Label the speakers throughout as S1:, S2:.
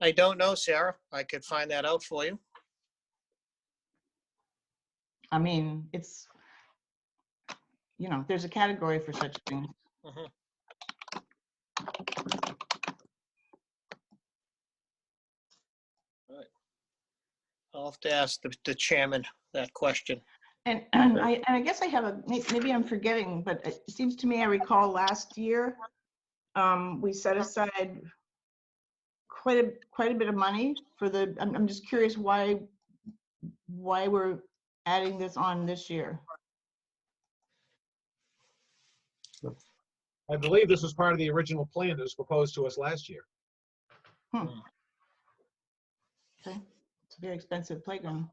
S1: I don't know, Sarah. I could find that out for you.
S2: I mean, it's, you know, there's a category for such things.
S1: Mhm. Right. I'll have to ask the- the chairman that question.
S2: And, and I, and I guess I have a, may- maybe I'm forgetting, but it seems to me I recall last year, um, we set aside quite a, quite a bit of money for the, I'm, I'm just curious why, why we're adding this on this year.
S3: I believe this was part of the original plan that was proposed to us last year.
S2: Okay, It's a very expensive playground.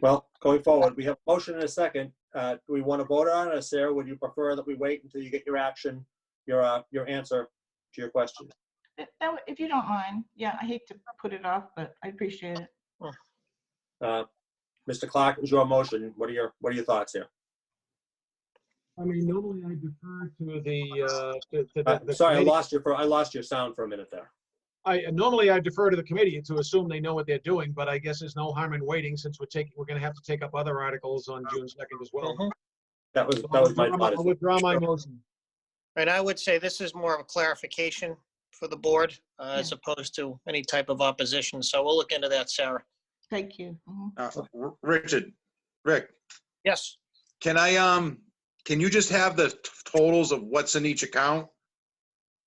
S4: Well, going forward, we have a motion and a second. Uh, Do we want to vote on it, or Sarah, would you prefer that we wait until you get your action, your, uh, your answer to your question?
S2: If- that would- If you don't mind, yeah, I hate to put it off, but I appreciate it.
S4: Uh, Mr. Clark, it was your motion. What are your, what are your thoughts here?
S3: I mean, normally I defer to the, uh, to- to
S4: Uh,
S3: the- the.
S4: Sorry, I
S3: committee.
S4: lost your, for- I lost your sound for a minute there.
S3: I, normally I defer to the committee to assume they know what they're doing, but I guess there's no harm in waiting since we're taking, we're gonna have to take up other articles on June second as well.
S1: Mhm.
S4: That was,
S3: So
S4: that was my
S3: I'll
S4: thought. as
S3: I'll
S4: well.
S3: withdraw my motion.
S1: And I would say this is more of a clarification for the board uh, as opposed to any type of opposition. So we'll look into that, Sarah.
S2: Thank you. Mhm.
S5: Uh, R- Richard, Rick,
S1: Yes,
S5: can I, um, can you just have the t- totals of what's in each account?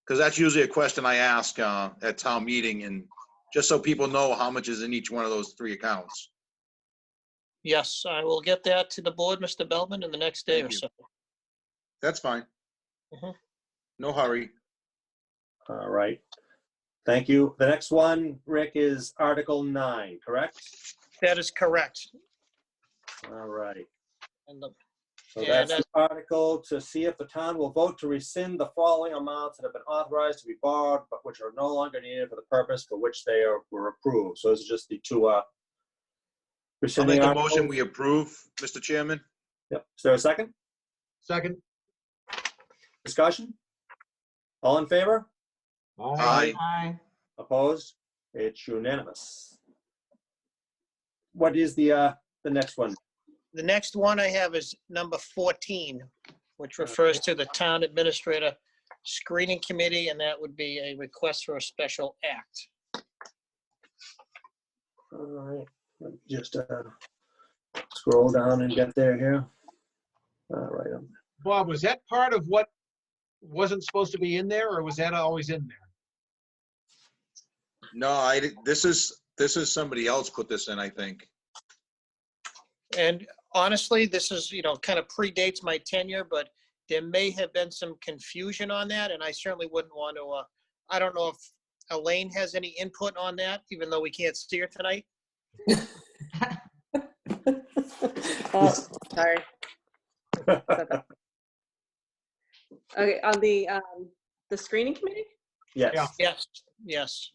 S5: Because that's usually a question I ask, uh, at town meeting and just so people know how much is in each one of those three accounts.
S1: yes, I will get that to the board, Mr. Belvin, in the next day or
S5: Thank you.
S1: so.
S5: That's fine.
S1: Mhm.
S5: No hurry.
S4: All right. Thank you. The next one, Rick, is Article 9, correct?
S1: That is correct.
S4: All right.
S1: And the-
S4: So
S1: Yeah,
S4: that's the article to see if the town will vote to rescind the following amounts that have been authorized to be borrowed, but which are no longer needed for the purpose for which they are- were approved. So this is just the two, uh,
S5: I'll
S4: rescinding
S5: make a motion,
S4: articles.
S5: we approve, Mr. Chairman.
S4: Yep. Is there a second?
S3: Second?
S4: Discussion? All in favor?
S5: Aye.
S2: Aye.
S4: Opposed? It's unanimous. What is the, uh, the next one?
S1: The next one I have is number 14, which refers to the Town Administrator Screening Committee, and that would be a request for a special act.
S4: All right, let me just, uh, scroll down and get there here. All right, um,
S3: Bob, was that part of what wasn't supposed to be in there or was that always in there?
S5: No, I, di- this is, this is somebody else put this in, I think.
S1: And honestly, this is, you know, kind of predates my tenure, but there may have been some confusion on that, and I certainly wouldn't want to, uh, I don't know if Elaine has any input on that, even though we can't see her tonight.
S6: Oh, sorry. Okay, on the, um, the screening committee?
S3: Yeah.
S4: Yes,
S1: Yes, yes.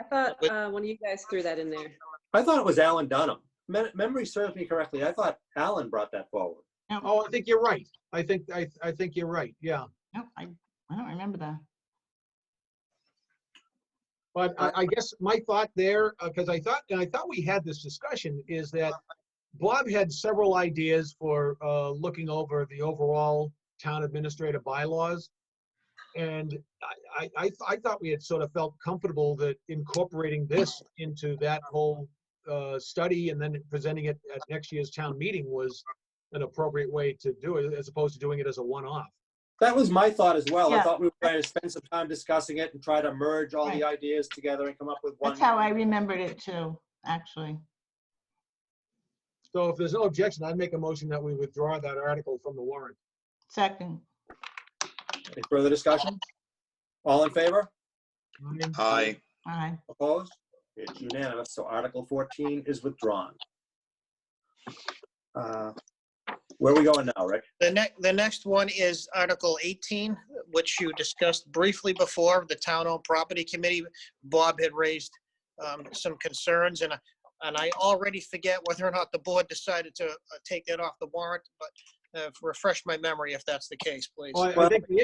S6: I thought,
S1: With-
S6: uh, one of you guys threw that in there.
S4: I thought it was Alan Dunham. Mem- Memory serves me correctly, I thought Alan brought that forward.
S3: Oh, I think you're right. I think, I, I think you're right, yeah.
S2: No, I, I don't remember that.
S3: But I, I guess my thought there, because I thought, and I thought we had this discussion, is that Bob had several ideas for uh, looking over the overall town administrator bylaws. And I- I, I, I thought we had sort of felt comfortable that incorporating this into that whole uh, study and then presenting it at next year's town meeting was an appropriate way to do it, as opposed to doing it as a one-off.
S4: That was my thought as well, I
S2: Yeah.
S4: thought we were going to spend some time discussing it and try to merge all the ideas together and come up with one.
S2: That's how I remembered it too, actually.
S3: So if there's no objection, I'd make a motion that we withdraw that article from the warrant.
S2: Second,
S4: Any further discussion? All in favor?
S5: Aye.
S2: aye.
S4: Opposed? It's unanimous, so Article 14 is withdrawn. Uh, Where are we going now, Rick?
S1: The next, the next one is Article 18, which you discussed briefly before, the Town Owned Property Committee. Bob had raised um, some concerns, and, I- and I already forget whether or not the board decided to uh, take that off the warrant, but uh, refresh my memory if that's the case, please.
S3: Well, I- I
S4: Well-
S3: think the